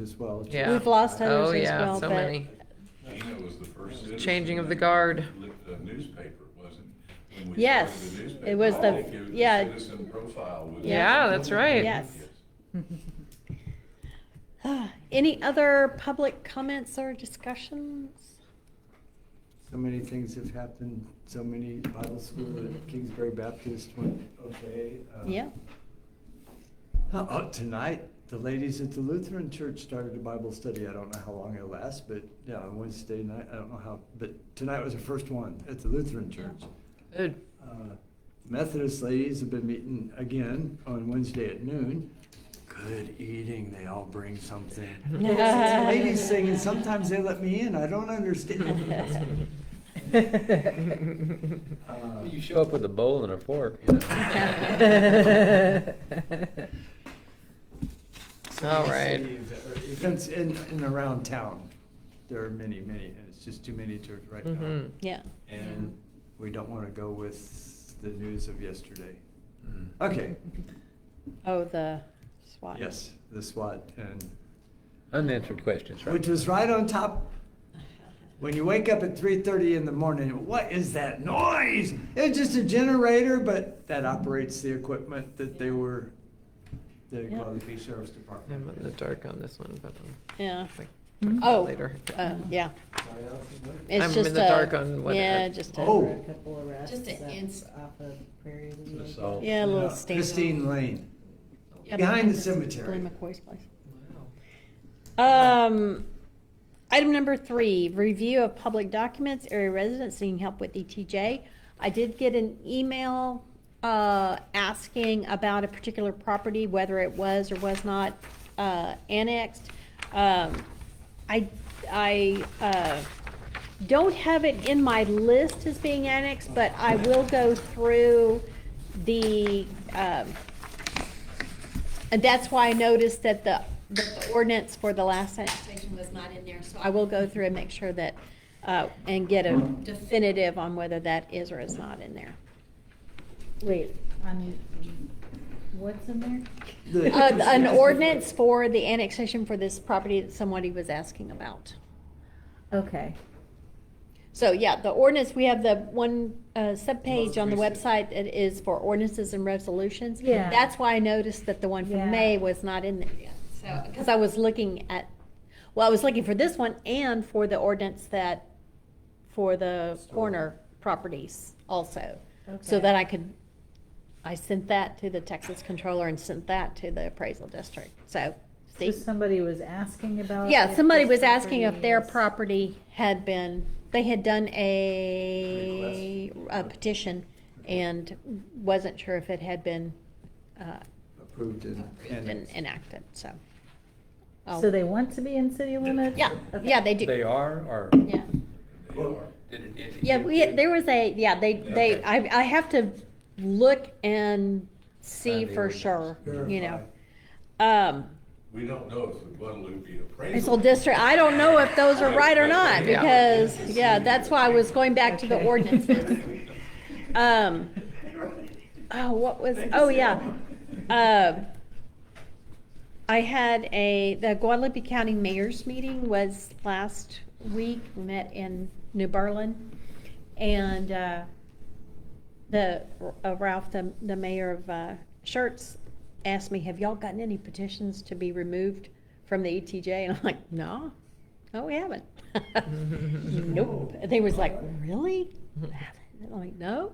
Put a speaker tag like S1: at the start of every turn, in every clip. S1: as well. It's-
S2: Yeah.
S3: We've lost
S2: Oh,
S3: others as
S2: yeah,
S3: well,
S2: so
S3: but
S2: many.
S4: Gina was the first citizen.
S2: Changing of the
S4: that
S2: guard.
S4: li- The newspaper, wasn't? when we started
S3: Yes,
S4: the
S3: it
S4: newspaper,
S3: was the-
S4: all they gave
S3: yeah.
S4: Citizen profile was.
S2: Yeah, that's right.
S3: Yes. Ah, any other public comments or discussions?
S1: So many things have happened, so many Bible school at Kingsbury Baptist went okay. uh,
S3: Yeah,
S1: Oh, tonight, the ladies at the Lutheran Church started a Bible study. I don't know how long it'll last, but yeah, on Wednesday night, I don't know how, but tonight was the first one at the Lutheran Church.
S2: Good.
S1: Uh, Methodist ladies have been meeting again on Wednesday at noon. Good eating, they all bring something. Well, since the Ladies sing, and sometimes they let me in, I don't understand. Uh,
S5: You show up with a bowl and a fork.
S1: so many
S2: All right.
S1: cities, uh, Events in, and around town, there are many, many, and it's just too many to right now.
S2: Mhm.
S3: yeah.
S1: And we don't want to go with the news of yesterday. Okay,
S3: Oh, the SWAT.
S1: yes, the SWAT and
S5: Unanswered questions, right?
S1: which was right on top. When you wake up at three thirty in the morning, what is that noise? It's just a generator, but that operates the equipment that they were, the
S3: Yeah.
S1: Guadalupe County Sheriff's
S2: I'm in the
S1: Department.
S2: dark on this one, but
S3: Yeah.
S2: I'll like,
S3: Hmm?
S2: talk
S3: Oh,
S2: about later.
S3: uh,
S1: Sorry,
S3: yeah.
S1: Alex, what?
S3: It's
S2: I'm in
S3: just
S2: the
S3: a-
S2: dark on what-
S3: Yeah, just a.
S1: Oh.
S6: A couple of arrests.
S7: Just an
S6: up
S7: ins-
S6: Off of Prairie League.
S5: That's all.
S3: Yeah, a little
S1: No,
S3: stain.
S1: Christine Lane.
S3: Yeah,
S1: Behind the
S3: this is
S1: cemetery.
S3: Glenn McCoy's place. Um, item number three, review of public documents, area residents seeking help with ETJ. I did get an email, uh, asking about a particular property, whether it was or was not, uh, annexed. Um, I, I, uh, don't have it in my list as being annexed, but I will go through the, um, and that's why I noticed that the, the ordinance for the last sentence,
S7: Station was not in there, so.
S3: I will go through and make sure that, uh, and get a definitive on whether that is or is not in there.
S6: Wait, I mean, what's in there?
S1: The-
S3: Uh, An ordinance for the annexation for this property that somebody was asking about.
S6: Okay.
S3: So, yeah, the ordinance, we have the one, uh, subpage on the
S1: Most
S3: website that is for ordinances and resolutions.
S6: Yeah.
S3: That's why I noticed that the one
S6: Yeah.
S3: from May was not in there.
S7: Yeah, So,
S3: Because I was looking at, well, I was looking for this one and for the ordinance that, for the corner properties also. So
S6: Okay.
S3: that I could, I sent that to the Texas controller and sent that to the appraisal district, so.
S6: So
S3: see.
S6: somebody was asking about.
S3: Yeah,
S6: if
S3: somebody
S6: this
S3: was asking if their
S6: is-
S3: property had been, they had done a a petition and wasn't sure if it had been, uh,
S1: Approved and. and-
S3: been enacted, so. Oh.
S6: So they want to be in city limits?
S3: Yeah,
S6: Okay.
S3: yeah, they do.
S5: They are, or?
S3: Yeah,
S4: They are.
S5: Did- did-
S3: yeah, we,
S5: did-
S3: there was a, yeah, they, they,
S5: Okay.
S3: I, I have to look and see
S5: Find the
S3: for
S5: ordinance.
S3: sure, you know.
S1: Verify.
S3: Um,
S4: We don't know if the Guadalupe appraisal.
S3: Appraisal district, I don't know if those are right or not,
S2: Yeah.
S3: because, yeah, that's why I was going back to the
S6: Okay.
S3: ordinances. Um, oh, what was, oh, yeah. Uh, I had a, the Guadalupe County Mayor's meeting was last week, We met in New Berlin. And, uh, the, uh, Ralph, the, the mayor of, uh, Shirts asked me, have y'all gotten any petitions to be removed from the ETJ? And I'm like, no, no, we haven't. Nope. They was like, really? Haven't?" And I'm like, no,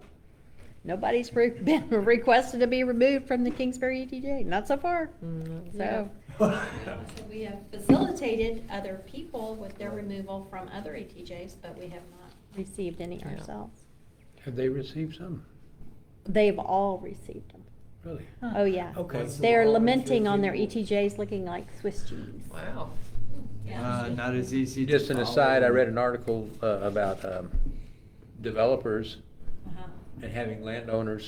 S3: nobody's re- been requested to be removed from the Kingsbury ETJ, not so far.
S2: mm,
S3: So,
S7: so we have facilitated other people with their removal from other ETJs, but we have not.
S3: received any
S2: Yeah.
S3: ourselves.
S5: Have they received some?
S3: They've all received them.
S5: Really?
S6: Huh.
S3: Oh, yeah.
S5: Okay.
S1: What's the
S3: They're
S1: law with
S3: lamenting on their
S1: people?
S3: ETJs looking like Swiss cheese.
S2: Wow.
S1: Uh,
S7: Yeah.
S1: not as easy. to
S5: Just an
S1: follow.
S5: aside, I read an article uh, about um, developers
S7: Uh-huh.
S5: and having landowners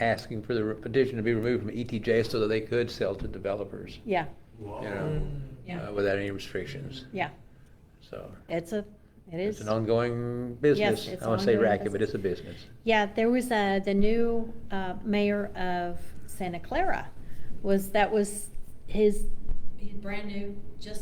S5: asking for the petition to be removed from ETJ so that they could sell to developers,
S3: Yeah,
S5: you
S1: Whoa.
S5: know,
S7: Yeah.
S5: uh, without any restrictions,
S3: yeah.
S5: so.
S3: It's a, it is.
S5: It's an ongoing business.
S3: it's
S5: I won't say
S3: ongoing
S5: racket, but
S3: business.
S5: it's a business.
S3: Yeah, there was uh the new uh, mayor of Santa Clara was, that was his he's brand new, just